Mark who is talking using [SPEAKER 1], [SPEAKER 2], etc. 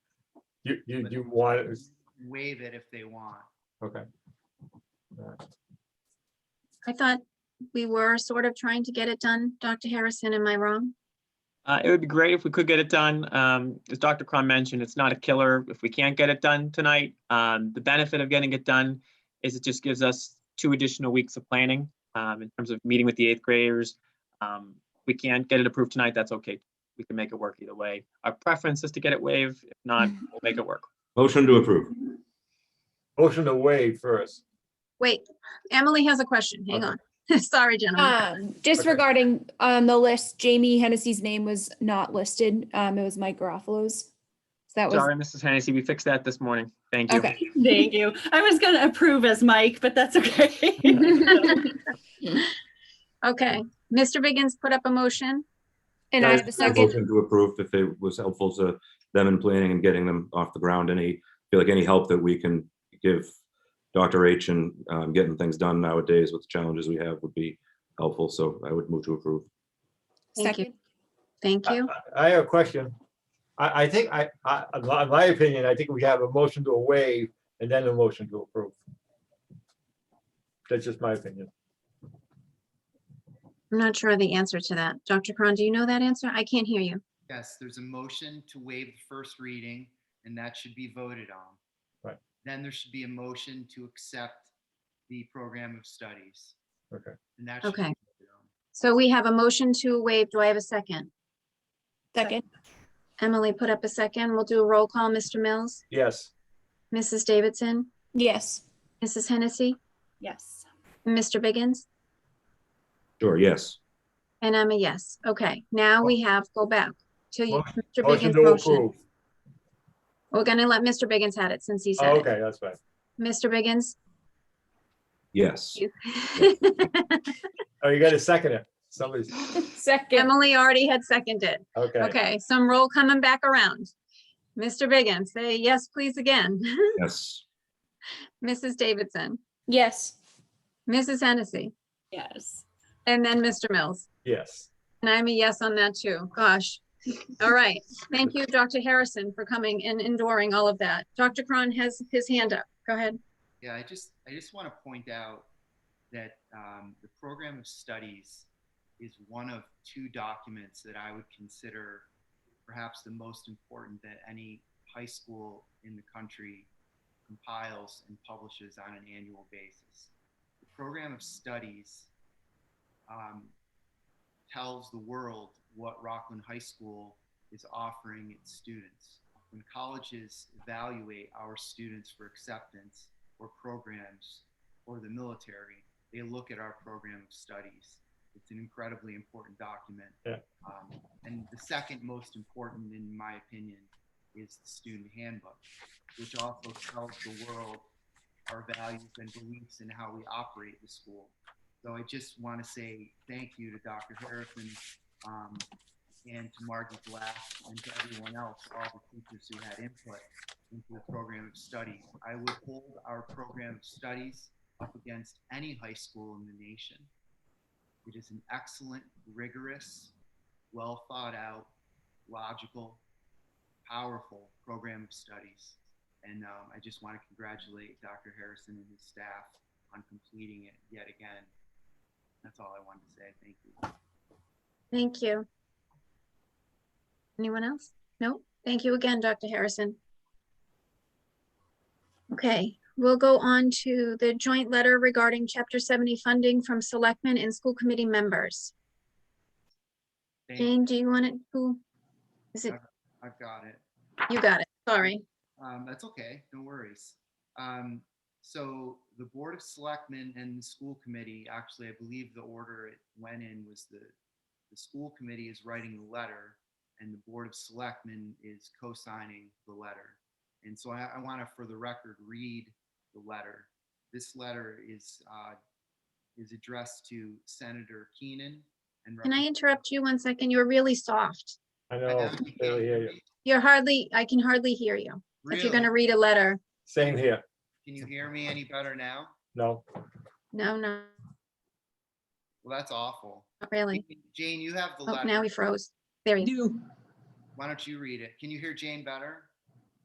[SPEAKER 1] You, you, you want, it-
[SPEAKER 2] waive it if they want.
[SPEAKER 1] okay.
[SPEAKER 3] I thought we were sort of trying to get it done. Dr. Harrison, am I wrong?
[SPEAKER 4] Uh, it would be great if we could get it done. Um, as Dr. Crum mentioned, it's not a killer if we can't get it done tonight. Um, the benefit of getting it done is it just gives us two additional weeks of planning, um, in terms of meeting with the eighth graders. Um, if we can't get it approved tonight, that's okay. We can make it work either way. Our preference is to get it waived. If not, we'll make it work.
[SPEAKER 5] Motion to approve.
[SPEAKER 1] Motion to waive first.
[SPEAKER 3] Wait, Emily has a question. Hang on. Sorry, gentlemen.
[SPEAKER 6] Um, just
[SPEAKER 1] Okay.
[SPEAKER 6] regarding, um, the list, Jamie Hennessy's name was not listed. Um, it was Mike Garofalo's. So that was,
[SPEAKER 4] Sorry, Mrs. Hennessy, we fixed that this morning. Thank you.
[SPEAKER 6] okay.
[SPEAKER 7] Thank you. I was gonna approve as Mike, but that's okay.
[SPEAKER 3] Okay, Mr. Biggins put up a motion.
[SPEAKER 6] And I have a second.
[SPEAKER 5] Motion to approve if it was helpful to them in planning and getting them off the ground. Any, feel like any help that we can give Dr. H and um, getting things done nowadays with the challenges we have would be helpful. So I would move to approve.
[SPEAKER 3] Thank you.
[SPEAKER 6] Second.
[SPEAKER 3] Thank
[SPEAKER 1] Uh,
[SPEAKER 3] you.
[SPEAKER 1] I have a question. I, I think, I, I, in my- in my opinion, I think we have a motion to waive and then a motion to approve. That's just my opinion.
[SPEAKER 3] I'm not sure of the answer to that. Dr. Cron, do you know that answer? I can't hear you.
[SPEAKER 2] Yes, there's a motion to waive the first reading, and that should be voted on.
[SPEAKER 1] Right.
[SPEAKER 2] Then there should be a motion to accept the program of studies.
[SPEAKER 1] Okay.
[SPEAKER 2] And that should be
[SPEAKER 3] Okay.
[SPEAKER 2] voted on.
[SPEAKER 3] So we have a motion to waive. Do I have a second?
[SPEAKER 6] Second.
[SPEAKER 3] Emily put up a second. We'll do a roll call. Mr. Mills,
[SPEAKER 1] Yes,
[SPEAKER 3] Mrs. Davidson,
[SPEAKER 6] Yes.
[SPEAKER 3] Mrs. Hennessy,
[SPEAKER 7] Yes.
[SPEAKER 3] and Mr. Biggins,
[SPEAKER 5] Sure, yes.
[SPEAKER 3] and I'm a yes. Okay, now we have, go back to you,
[SPEAKER 1] Motion-
[SPEAKER 3] Mr.
[SPEAKER 1] motion
[SPEAKER 3] Biggins'
[SPEAKER 1] to
[SPEAKER 3] motion.
[SPEAKER 1] approve.
[SPEAKER 3] We're gonna let Mr. Biggins have it since he
[SPEAKER 1] Oh,
[SPEAKER 3] said it.
[SPEAKER 1] Okay, that's fine.
[SPEAKER 3] Mr. Biggins?
[SPEAKER 5] Yes.
[SPEAKER 3] you-
[SPEAKER 1] Oh, you gotta second it. Somebody's,
[SPEAKER 6] Second.
[SPEAKER 3] Emily already had seconded.
[SPEAKER 1] okay.
[SPEAKER 3] Okay, some roll coming back around. Mr. Biggins, say yes, please again.
[SPEAKER 5] Yes.
[SPEAKER 3] Mrs. Davidson,
[SPEAKER 6] Yes.
[SPEAKER 3] Mrs. Hennessy,
[SPEAKER 7] Yes.
[SPEAKER 3] and then Mr. Mills.
[SPEAKER 1] Yes.
[SPEAKER 3] And I'm a yes on that too. Gosh. All right. Thank you, Dr. Harrison, for coming and enduring all of that. Dr. Cron has his hand up. Go ahead.
[SPEAKER 2] Yeah, I just, I just want to point out that um, the program of studies is one of two documents that I would consider perhaps the most important that any high school in the country compiles and publishes on an annual basis. The program of studies um, tells the world what Rockland High School is offering its students. When colleges evaluate our students for acceptance, or programs or the military, they look at our program of studies. It's an incredibly important document.
[SPEAKER 1] Yeah.
[SPEAKER 2] Um, and the second most important, in my opinion, is the student handbook, which also tells the world our values and beliefs and how we operate the school. So I just want to say thank you to Dr. Harrison um, and to Margie Glass and to everyone else, all the teachers who had input into the program of studies. I would hold our program of studies up against any high school in the nation. It is an excellent, rigorous, well thought out, logical, powerful program of studies. And um, I just want to congratulate Dr. Harrison and his staff on completing it yet again. That's all I wanted to say. Thank you.
[SPEAKER 3] Thank you. Anyone else? No? Thank you again, Dr. Harrison. Okay, we'll go on to the joint letter regarding Chapter 70 funding from selectmen and school committee members.
[SPEAKER 2] Thank you.
[SPEAKER 3] Jane, do you want it? Who? Is it,
[SPEAKER 2] I've got it.
[SPEAKER 3] you got it. Sorry.
[SPEAKER 2] Um, that's okay, no worries. Um, so the Board of Selectmen and the school committee, actually, I believe the order it went in was the, the school committee is writing the letter and the Board of Selectmen is co-signing the letter. And so I, I want to, for the record, read the letter. This letter is, uh, is addressed to Senator Keenan and.
[SPEAKER 3] Can I interrupt you one second? You're really soft.
[SPEAKER 1] Oh, I know. barely hear you.
[SPEAKER 3] You're hardly, I can hardly hear you. If you're
[SPEAKER 2] Really?
[SPEAKER 3] going to read a letter,
[SPEAKER 1] Same here.
[SPEAKER 2] Can you hear me any better now?
[SPEAKER 1] No,
[SPEAKER 3] no, no,
[SPEAKER 2] Well, that's awful.
[SPEAKER 3] not really.
[SPEAKER 2] Jane, you have the
[SPEAKER 3] Oh,
[SPEAKER 2] letter.
[SPEAKER 3] now we froze. There you go.
[SPEAKER 4] do.
[SPEAKER 2] Why don't you read it? Can you hear Jane better?